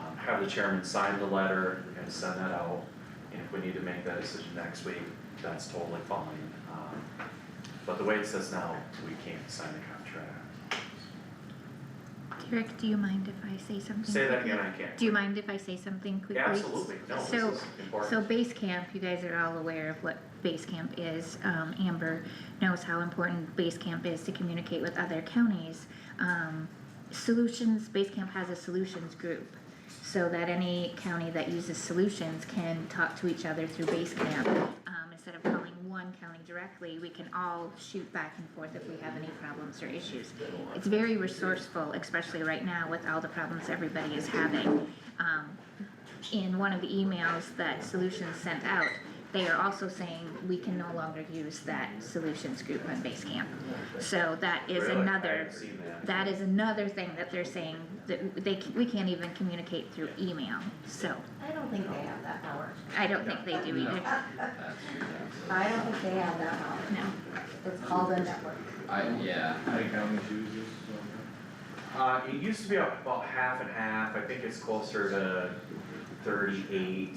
um, have the chairman sign the letter, we're gonna send that out. And if we need to make that decision next week, that's totally fine, um, but the way it says now, we can't sign the contract. Derek, do you mind if I say something? Say that quickly? again, I can't. Do you mind if I say something quickly? Absolutely, no, this So- is important. So base camp, you guys are all aware of what base camp is. Um, Amber knows how important base camp is to communicate with other counties. Um, solutions, base camp has a solutions group. So that any county that uses solutions can talk to each other through base camp. Um, instead of calling one county directly, we can all shoot back and forth if we have any problems or issues. It's very resourceful, especially right now with all the problems everybody is having. Um, in one of the emails that Solutions sent out, they are also saying we can no longer use that Solutions group on Basecamp. So that is Really? I another, haven't seen that. that is another thing that they're saying, that they, c- we can't even communicate through email, so I don't think they have that power. I don't think they do either, I don't think they have that power. no. It's called a network. I, yeah, I think how many Jews is so- Uh, it used to be about half and half, I think it's closer to 38,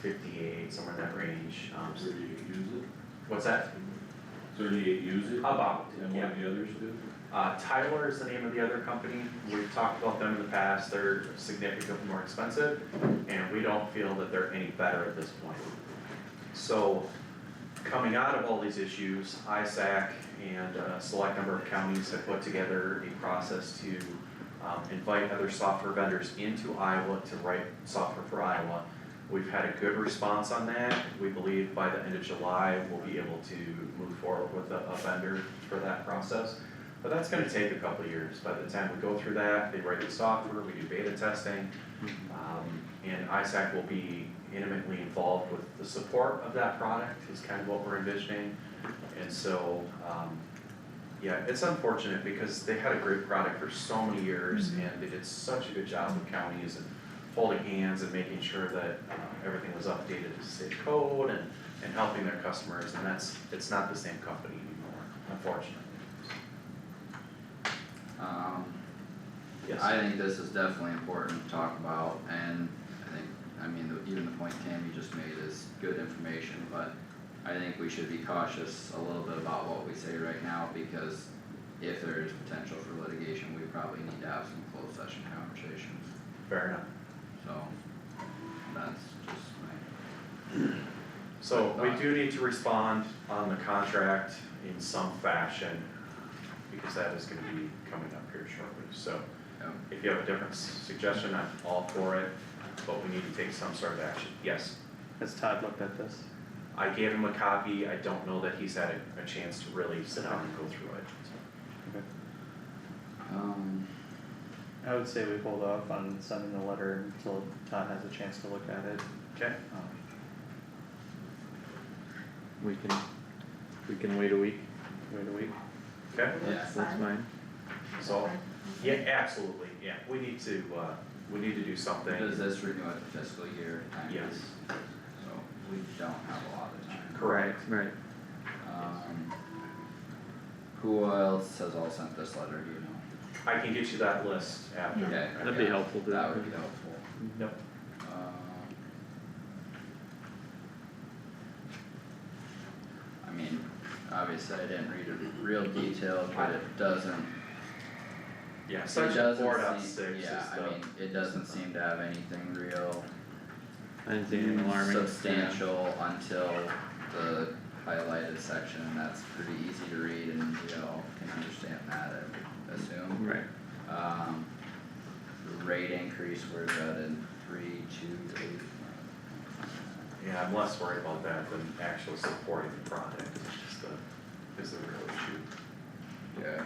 58, somewhere in that range, um, so- Thirty-eight use what's that? it, thirty-eight use it, About, and yeah. what do the others do? Uh, Tyler is the name of the other company, we've talked about them in the past, they're significantly more expensive, and we don't feel that they're any better at this point. So, coming out of all these issues, ISAC and a select number of counties have put together a process to um, invite other software vendors into Iowa to write software for Iowa. We've had a good response on that, we believe by the end of July, we'll be able to move forward with a a vendor for that process. But that's gonna take a couple of years, by the time we go through that, they write the software, we do beta testing. Um, and ISAC will be intimately involved with the support of that product is kind of what we're envisioning. And so, um, yeah, it's unfortunate because they had a great product for so many years and they did such a good job with counties and holding hands and making sure that, uh, everything was updated to state code and, and helping their customers. And that's, it's not the same company anymore, unfortunately. um, Yes. I think this is definitely important to talk about and I think, I mean, the- even the point Cam you just made is good information, but I think we should be cautious a little bit about what we say right now because if there is potential for litigation, we probably need to have some closed session conversations, Fair enough. so that's just my, So we do need to respond on the contract in some fashion, because that is gonna be coming up here shortly, so yep. if you have a different s- suggestion, I'm all for it, but we need to take some sort of action, yes. Has Todd looked at this? I gave him a copy, I don't know that he's had a, a chance to really sit down and go through it, so. Um, I would say we hold off on sending the letter until Todd has a chance to look at it. Okay, Um, We can, we can wait a week. Wait a week, okay, yeah, that's fine. so, yeah, absolutely, yeah, we need to, uh, we need to do something. does this renew at the fiscal year time? Yes. So we don't have a lot of time. Correct. Right, Um. Who else has all sent this letter, do you know? I can get you that list after. Okay. that'd be helpful to. That would be helpful, Yep. um. I mean, obviously I didn't read it real detailed, but it doesn't, Yeah, it section four doesn't dot seem, six is yeah, I the- mean, it doesn't seem to have anything real I didn't see anything alarming. substantial until the highlighted section, and that's pretty easy to read and we all can understand that, I would assume. Right, Um, the rate increase we're at in three, two, eight. Yeah, I'm less worried about that than actual supporting the product, it's just the, is the real issue. Yeah.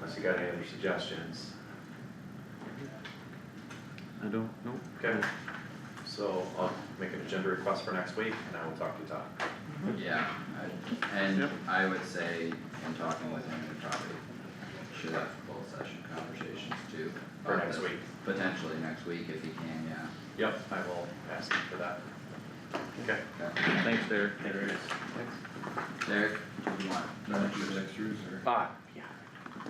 Unless you got any other suggestions, I don't, nope. okay? So I'll make an agenda request for next week and I will talk to Todd. Yeah, I, and Yep. I would say, in talking with him, we probably should have both session conversations too. For about next this, week. Potentially next week if he can, yeah, Yep, I will ask him for that. Okay. okay. Thanks, Derek. There it is. Thanks. Derek, do you want? Not just extras or? Ah,